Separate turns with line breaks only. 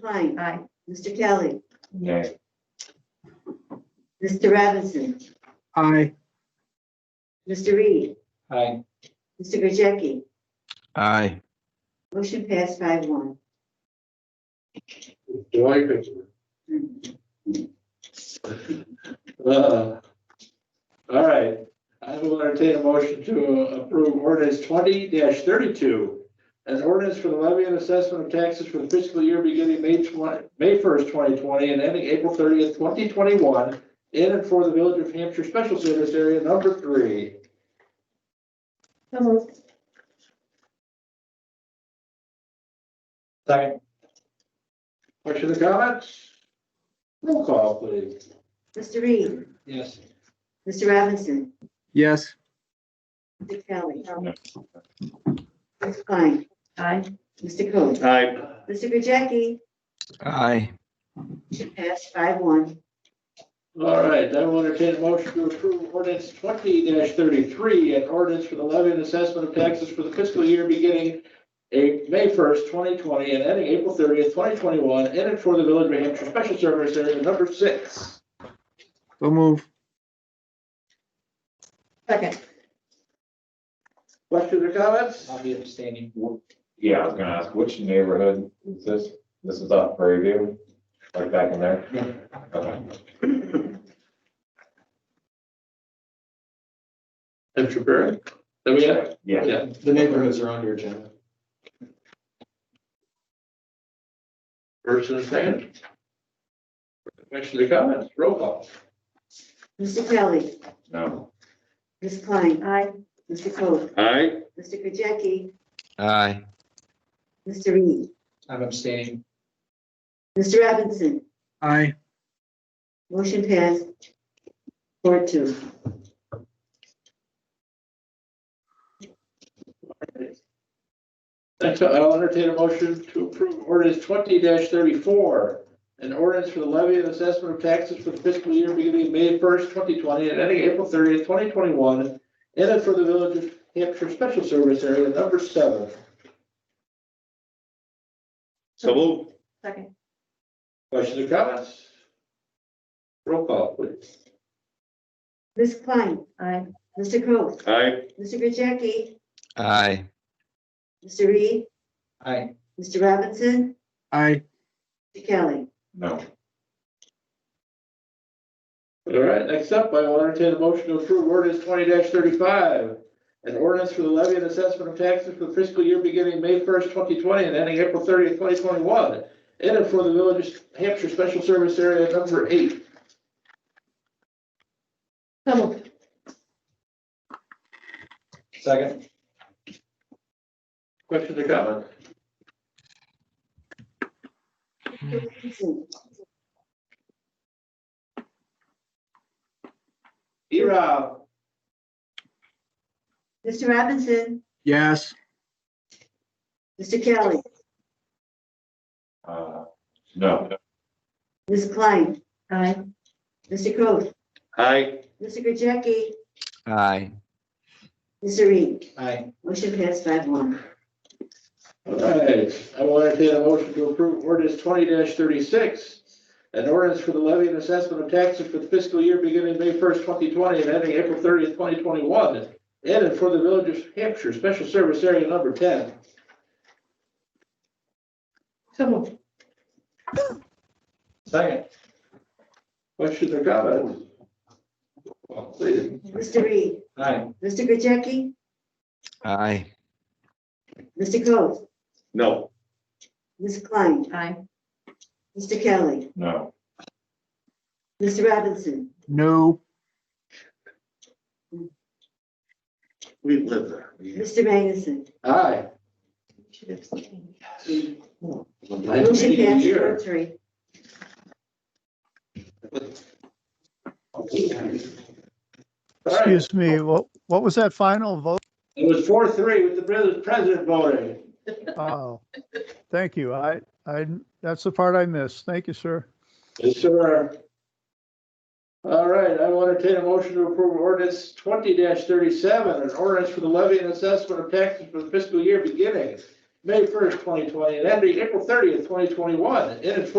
Klein,
Aye.
Mr. Kelly,
Nay.
Mr. Robinson,
aye,
Mr. Reed,
Aye.
Mr. Gajeki.
aye,
Motion passed five one.
July picture. Uh, All right, I will entertain a motion to approve ordinance twenty thirty-two. An ordinance for the levy and assessment of taxes for the fiscal year beginning May twenty, May first, twenty twenty, and ending April thirtieth, twenty twenty-one, in and for the Village of Hampshire Special Service Area Number Three.
So moved.
Second. Questions or comments? Roll call, please.
Mr. Reed,
Yes.
Mr. Robinson,
yes,
Mr. Kelly. Ms. Klein,
Aye.
Mr. Coe,
Aye.
Mr. Gajeki.
aye.
Motion passed five one.
All right, then we'll entertain a motion to approve ordinance twenty thirty-three, an ordinance for the levy and assessment of taxes for the fiscal year beginning A- May first, twenty twenty, and ending April thirtieth, twenty twenty-one, in and for the Village of New Hampshire Special Service Area Number Six.
so move,
Second.
Questions or comments?
I'll be abstaining.
Yeah, I was gonna ask, which neighborhood is this? This is off Prairie View, right back in there? Okay.
Mr. Barrett? There we are.
Yeah,
Yeah.
The neighborhoods are on your agenda.
First and second. Questions or comments? Roll call.
Mr. Kelly,
no,
Ms. Klein,
Aye.
Mr. Coe,
Aye.
Mr. Gajeki,
Aye.
Mr. Reed,
I'm abstaining.
Mr. Robinson.
aye.
Motion passed four two.
Next, up, I'll entertain a motion to approve ordinance twenty thirty-four. An ordinance for the levy and assessment of taxes for the fiscal year beginning May first, twenty twenty, and ending April thirtieth, twenty twenty-one. In and for the Village of Hampshire Special Service Area Number Seven.
So
move.
Second.
Questions or comments? Roll call, please.
Ms. Klein,
Aye.
Mr. Coe,
Aye.
Mr. Gajeki,
Aye.
Mr. Reed,
Aye.
Mr. Robinson,
Aye,
Mr. Kelly.
no,
All right, next up, I will entertain a motion to approve ordinance twenty thirty-five. An ordinance for the levy and assessment of taxes for the fiscal year beginning May first, twenty twenty and ending April thirtieth, twenty twenty-one. In and for the Village of Hampshire Special Service Area Number Eight.
So moved.
Second.
Questions or comments?
Mr. Robinson,
E-Rob.
Mr. Robinson,
yes,
Mr. Kelly,
uh, no.
Ms. Klein,
Aye.
Mr. Coe,
Aye.
Mr. Gajeki,
Aye.
Mr. Reed.
Aye.
Motion passed five one.
All right, I will entertain a motion to approve ordinance twenty thirty-six. An ordinance for the levy and assessment of taxes for the fiscal year beginning May first, twenty twenty and ending April thirtieth, twenty twenty-one. In and for the Village of Hampshire Special Service Area Number ten.
So moved.
Second.
Questions or comments? Well, please.
Mr. Reed,
Aye.
Mr. Gajeki,
Aye.
Mr. Coe,
No.
Ms. Klein,
Aye.
Mr. Kelly,
No,
Mr. Robinson,
no,
We live there.
Mr. Magnuson.
Aye.
Should abstain.
Motion passed four three.
All right,
Excuse me, what, what was that final vote?
it was four three with the pres- president voting.
Oh, thank you. I, I, that's the part I missed. Thank you, sir.
Yes, sir. All right, I will entertain a motion to approve ordinance twenty thirty-seven, an ordinance for the levy and assessment of taxes for the fiscal year beginning May first, twenty twenty, and ending April thirtieth, twenty twenty-one, in its